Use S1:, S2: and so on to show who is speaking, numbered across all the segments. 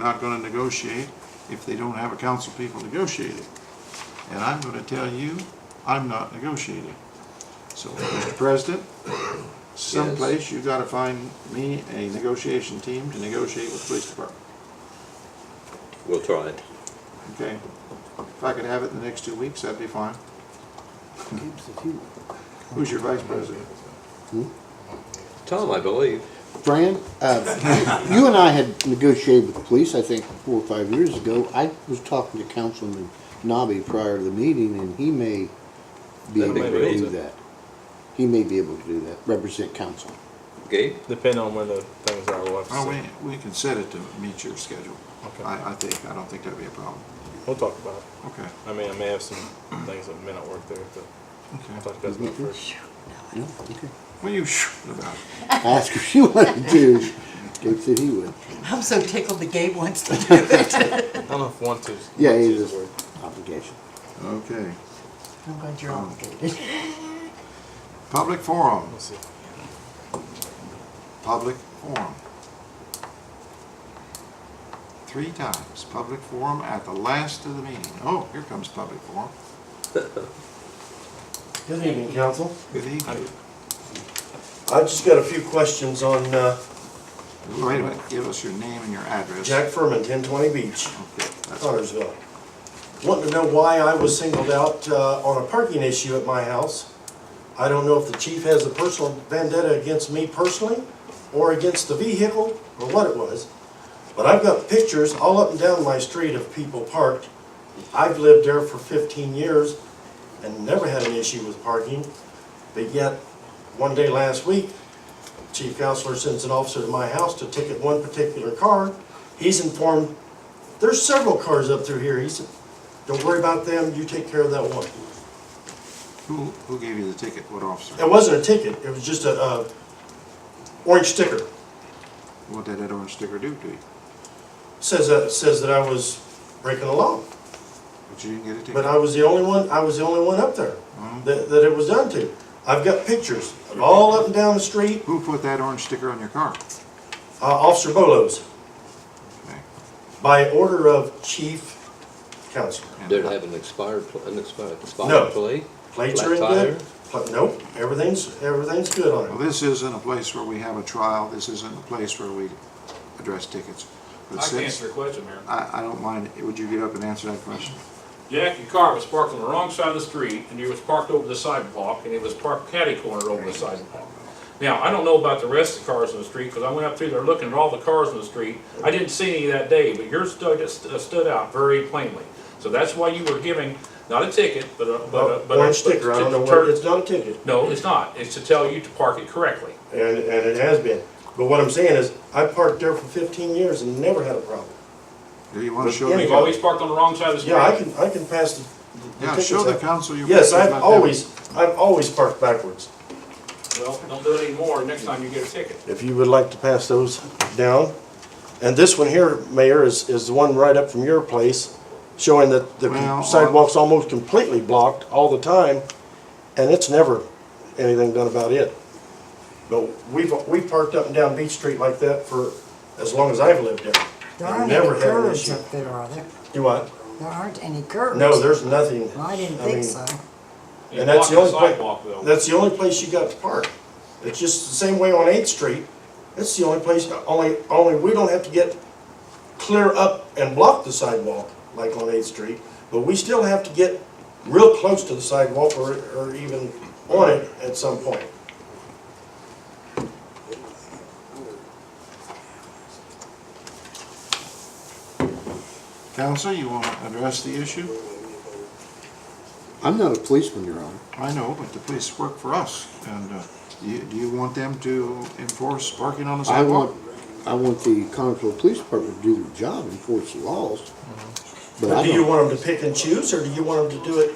S1: not gonna negotiate if they don't have a council people negotiating. And I'm gonna tell you, I'm not negotiating. So, Mr. President, someplace you gotta find me a negotiation team to negotiate with the police department,
S2: We'll try it.
S1: okay? If I could have it in the next two weeks, that'd be fine. Who's your vice president?
S2: Tom, I believe.
S3: Fran, uh, you and I had negotiated with the police, I think, four or five years ago. I was talking to Councilman Nobby prior to the meeting, and he may be
S2: That'd
S3: able
S2: be
S3: to
S2: great.
S3: do that. He may be able to do that, represent council.
S2: Gabe?
S4: Depending on where the things are, we'll have to
S1: Well,
S4: see.
S1: Oh, we, we can set it to meet your schedule.
S4: Okay.
S1: I, I think, I don't think that'd be a problem.
S4: We'll talk about it.
S1: Okay,
S4: I mean, I may have some things that may not work there, but I'll
S1: okay.
S4: talk to you guys about it first.
S3: No, okay.
S1: What are you shooting about?
S3: Ask if she wanted to. Gabe said he would.
S5: I'm so tickled the Gabe wants to do it.
S4: I don't know if want to. is-
S3: Yeah,
S4: want to
S3: it
S4: is
S3: is
S4: the word.
S3: obligation.
S1: Okay.
S5: I'm glad you're
S6: Um,
S5: obligated.
S1: Public forum.
S4: Let's see.
S1: public forum. Three times, public forum at the last of the meeting. Oh, here comes public forum.
S6: Good evening, council.
S1: Good evening.
S6: I've just got a few questions on uh,
S1: Wait a minute, give us your name and your address.
S6: Jack Furman, 1020 Beach,
S1: Okay, that's-
S6: Connersville. Wanting to know why I was singled out uh, on a parking issue at my house. I don't know if the chief has a personal vendetta against me personally, or against the vehicle, or what it was, but I've got pictures all up and down my street of people parked. I've lived there for 15 years and never had an issue with parking, but yet, one day last week, chief counselor sends an officer to my house to ticket one particular car. He's informed, there's several cars up through here. He said, don't worry about them, you take care of that one.
S1: Who, who gave you the ticket? What officer?
S6: It wasn't a ticket, it was just a, uh, orange sticker.
S1: What did that orange sticker do to you?
S6: Says, that says that I was breaking the law.
S1: But you didn't get a ticket?
S6: But I was the only one, I was the only one up there
S7: Mm-hmm.
S6: that, that it was done to. I've got pictures of all up and down the street,
S1: Who put that orange sticker on your car?
S6: uh, Officer Bolos,
S1: Okay,
S6: by order of chief counselor.
S1: and- uh,
S2: Did it have an expired, pl- an expired,
S6: No.
S2: expired plea?
S6: Plates
S2: Flat
S6: are in
S2: tire?
S6: good? Pla- Nope, everything's, everything's good
S1: Well,
S6: on it.
S1: this isn't a place where we have a trial. This isn't a place where we address tickets. But
S7: I can
S1: since-
S7: answer your question, Mayor.
S1: I, I don't mind. Would you get up and answer that question?
S7: Jack, your car was parked on the wrong side of the street, and you was parked over the sidewalk, and it was parked catty-cornered over the sidewalk. Now, I don't know about the rest of the cars in the street, because I went up through there looking at all the cars in the street. I didn't see any that day, but yours stood, st- uh, stood out very plainly. So that's why you were giving, not a ticket, but a, but a. but a-
S6: Orange sticker, I don't know
S7: but
S6: where,
S7: to-
S6: it's not a ticket,
S7: No, it's not. It's to tell you to park it correctly.
S6: and, and it has been. But what I'm saying is, I parked there for fifteen years and never had a problem.
S1: Do you want to
S6: But
S1: show
S6: yeah,
S1: me?
S7: You've always parked on the wrong side of the street.
S6: Yeah, I can, I can pass the- the.
S1: Yeah,
S6: tickets
S1: show the
S6: out.
S1: council your.
S6: Yes,
S1: pictures
S6: I've
S1: like that.
S6: always, I've always parked backwards.
S7: Well, don't do it anymore. Next time you get a ticket.
S6: If you would like to pass those down. And this one here, Mayor, is, is the one right up from your place, showing that
S1: Well,
S6: the sidewalk's almost completely blocked all the time, and it's never anything done about it. But we've, we've parked up and down Beach Street like that for as long as I've lived there.
S5: There aren't any
S6: Never had an
S5: curves
S6: issue.
S5: up there, are there?
S6: Do I?
S5: There aren't any curves.
S6: No, there's nothing.
S5: Well, I didn't
S6: mean,
S5: think so.
S7: You
S6: And that's the
S7: blocked
S6: only pla-
S7: sidewalk, though.
S6: That's the only place you got to park. It's just the same way on Eighth Street. It's the only place, only, only we don't have to get clear up and block the sidewalk like on Eighth Street, but we still have to get real close to the sidewalk or, or even on it at some point.
S1: Counsel, you want to address the issue?
S3: I'm not a policeman, Your Honor.
S1: I know, but the police work for us, and uh, do you- do you want them to enforce parking on the
S3: I
S1: sidewalk?
S3: want, I want the Connersville Police Department to do their job, enforce the laws. Mm-hmm. But I
S6: Do you
S3: don't,
S6: want them to pick and choose, or do you want them to do it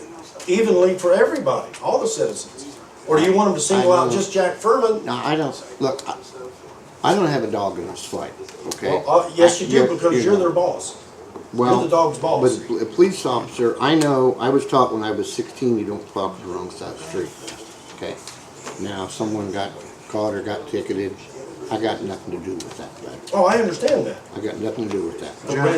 S6: evenly for everybody, all the citizens? Or do you want them to single out just Jack Furman?
S3: now, I don't, look, I, I don't have a dog in this fight, okay?
S6: Well, uh, yes, you do, because you're
S3: know.
S6: their boss.
S3: Well,
S6: the dog's boss.
S3: But a police officer, I know, I was taught when I was sixteen, you don't plow up the wrong side of the street. Okay, now if someone got caught or got ticketed, I got nothing to do with that, but
S6: Oh, I understand that. Oh,
S3: I got nothing to do with that.
S6: But
S1: John,
S6: when